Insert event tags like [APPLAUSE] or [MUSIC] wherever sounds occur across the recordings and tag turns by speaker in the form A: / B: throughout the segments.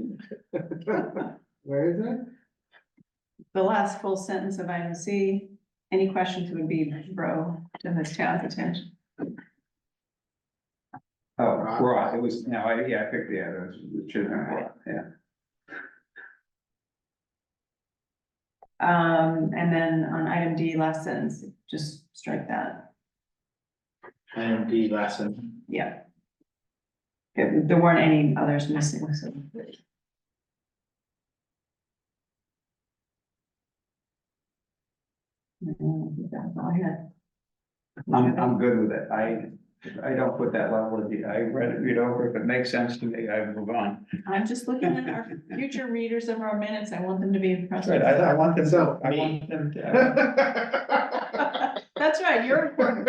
A: [LAUGHS] Where is it?
B: The last full sentence of item C, any questions would be bro to this town's attention.
C: Oh, right, it was, no, I, yeah, I picked the other, it should have, been, yeah.
B: Um, and then on item D, last sentence, just strike that,
A: Item D [LAUGHS] lesson.
B: yeah. There there weren't any others missing, so.
C: Um,
B: That's all I had.
C: I'm, I'm good with it, I, I don't put that level of, de- I read it, read over, if it makes sense to me, I move on.
B: I'm just looking at our future readers of our minutes, I want them to be impressed.
C: That's right,
B: [LAUGHS]
C: I, I want them,
A: So,
C: I
A: me.
C: want them to.
A: That's
B: That's right, you're important.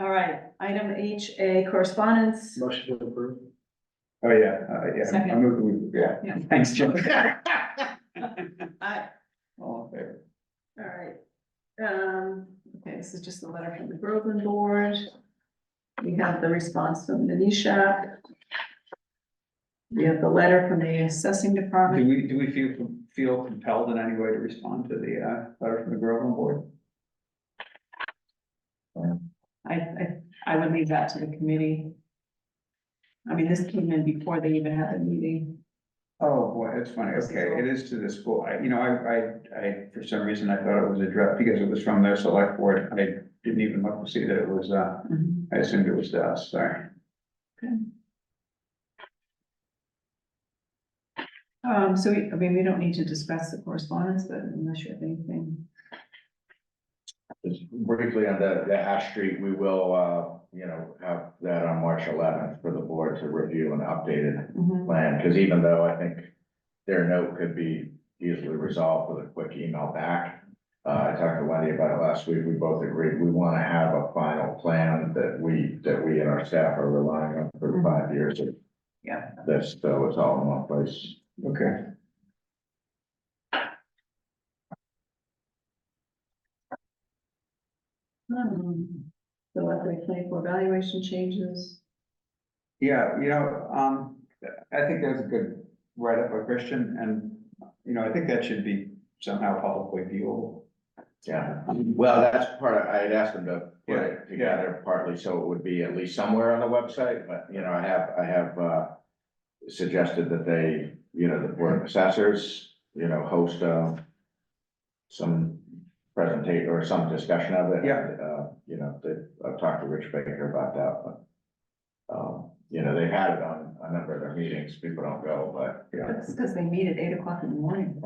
B: All right, item H, A correspondence.
A: Motion to approve.
C: Oh, yeah, uh, yeah, I
B: Second.
C: moved, yeah,
B: Yeah,
C: thanks, Jim.
B: I,
C: All in favor?
B: all right. Um, okay, this is just the letter from the Groveland Board. We have the response from the Nisha. We have the letter from the assessing
C: Do
B: department.
C: we, do we feel, feel compelled in any way to respond to the, uh, letter from the Groveland Board?
B: I, I, I would leave that to the committee. I mean, this came in before they even had the meeting.
C: Oh, boy, that's funny, okay, it is to the school, I, you know, I, I, I, for some reason, I thought it was addressed, because it was from their select board, I didn't even look to see that it was, uh, I assumed it was to us, sorry.
B: Um, so we, I mean, we don't need to discuss the correspondence, but unless you have anything.
D: Just briefly on the, the Ash Street, we will, uh, you know, have that on March eleventh for the board to review an updated
B: Mhm.
D: plan, because even though I think their note could be easily resolved with a quick email back. Uh, I talked to Wendy about it last week, we both agreed, we want to have a final plan that we, that we and our staff are relying on for
B: Mhm.
D: five years of
B: Yeah.
D: this, so it's all in one place.
C: Okay.
B: Um, The level twenty-four valuation changes.
C: Yeah, you know, um, I think that's a good write-up by Christian, and, you know, I think that should be somehow publicly viewable.
D: Yeah.
C: Um,
D: Well, that's part of, I had asked them to put
C: Yeah,
D: it together partly, so it would be at least somewhere on the website, but, you know, I have, I have, uh. Suggested that they, you know, the board of assessors, you know, host, uh. Some presentate or some discussion of it.
C: Yeah.
D: Uh, you know, they, I've talked to Rich Baker about that, but. Um, you know, they've had it on a number of their meetings, people don't go, but.
B: That's because they meet at eight o'clock in the morning.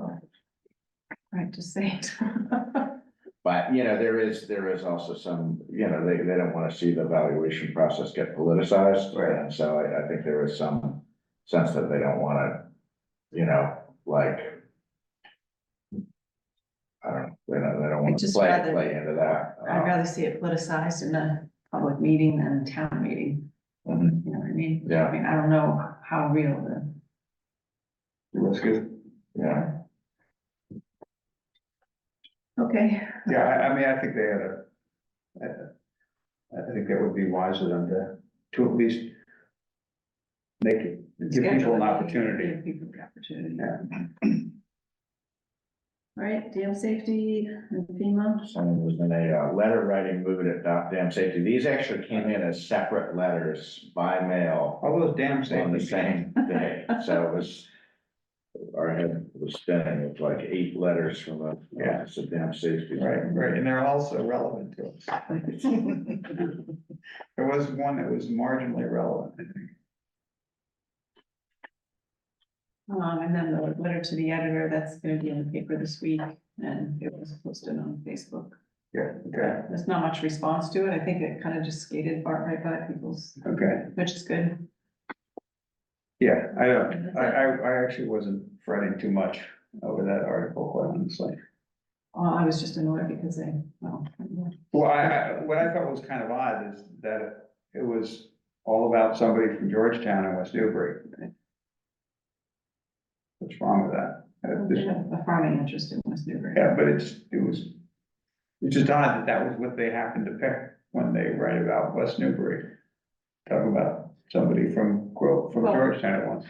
B: Right, just say [LAUGHS] it.
D: But, you know, there is, there is also some, you know, they, they don't wanna see the valuation process get politicized.
C: Right.
D: And so I, I think there is some sense that they don't wanna, you know, like. I don't, know, they don't, they don't
B: I'd
D: wanna
B: just
D: play,
B: rather-
D: play into that.
B: I'd rather see it politicized in a public meeting than a town meeting,
D: Mhm.
B: you know what I mean? I
D: Yeah,
B: mean, I don't know how real the,
C: That's good.
D: yeah,
B: okay,
C: Yeah, I, I mean, I think they had a, I, I think that would be wise of them to, to at least make it, give people
B: Schedule
C: an
B: it.
C: opportunity.
B: give people the opportunity.
C: Yeah.
B: All right, dam safety and FEMA,
D: someone was in a, uh, letter writing mood at Doc Dam Safety, these actually came in as separate letters by mail.
C: All those damn
D: on the
C: things.
D: same day, so it was. Our head was spinning with like eight letters from the
C: Yeah.
D: Office of Dam Safety.
C: Right, right, and they're also relevant to us.
B: [LAUGHS]
C: There was one that was marginally relevant, I think.
B: um, and then the letter to the editor, that's gonna be in the paper this week, and it was posted on Facebook.
C: Yeah, okay,
B: There's not much response to it. I think it kind of just skated bar- right by people's,
C: okay,
B: which is good.
C: yeah, I don't, I, I, I actually wasn't fretting too much over that article, quite honestly.
B: Uh, I was just annoyed because they, well,
C: Well, I, I, what I thought was kind of odd is that it was all about somebody from Georgetown and West Newbury. What's wrong with that? Uh,
B: they
C: this-
B: have a farming interest in West Newbury.
C: Yeah, but it's, it was, it's just odd that that was what they happened to pick when they write about West Newbury. Talk about somebody from Grove, from
B: Well-
C: Georgetown at once.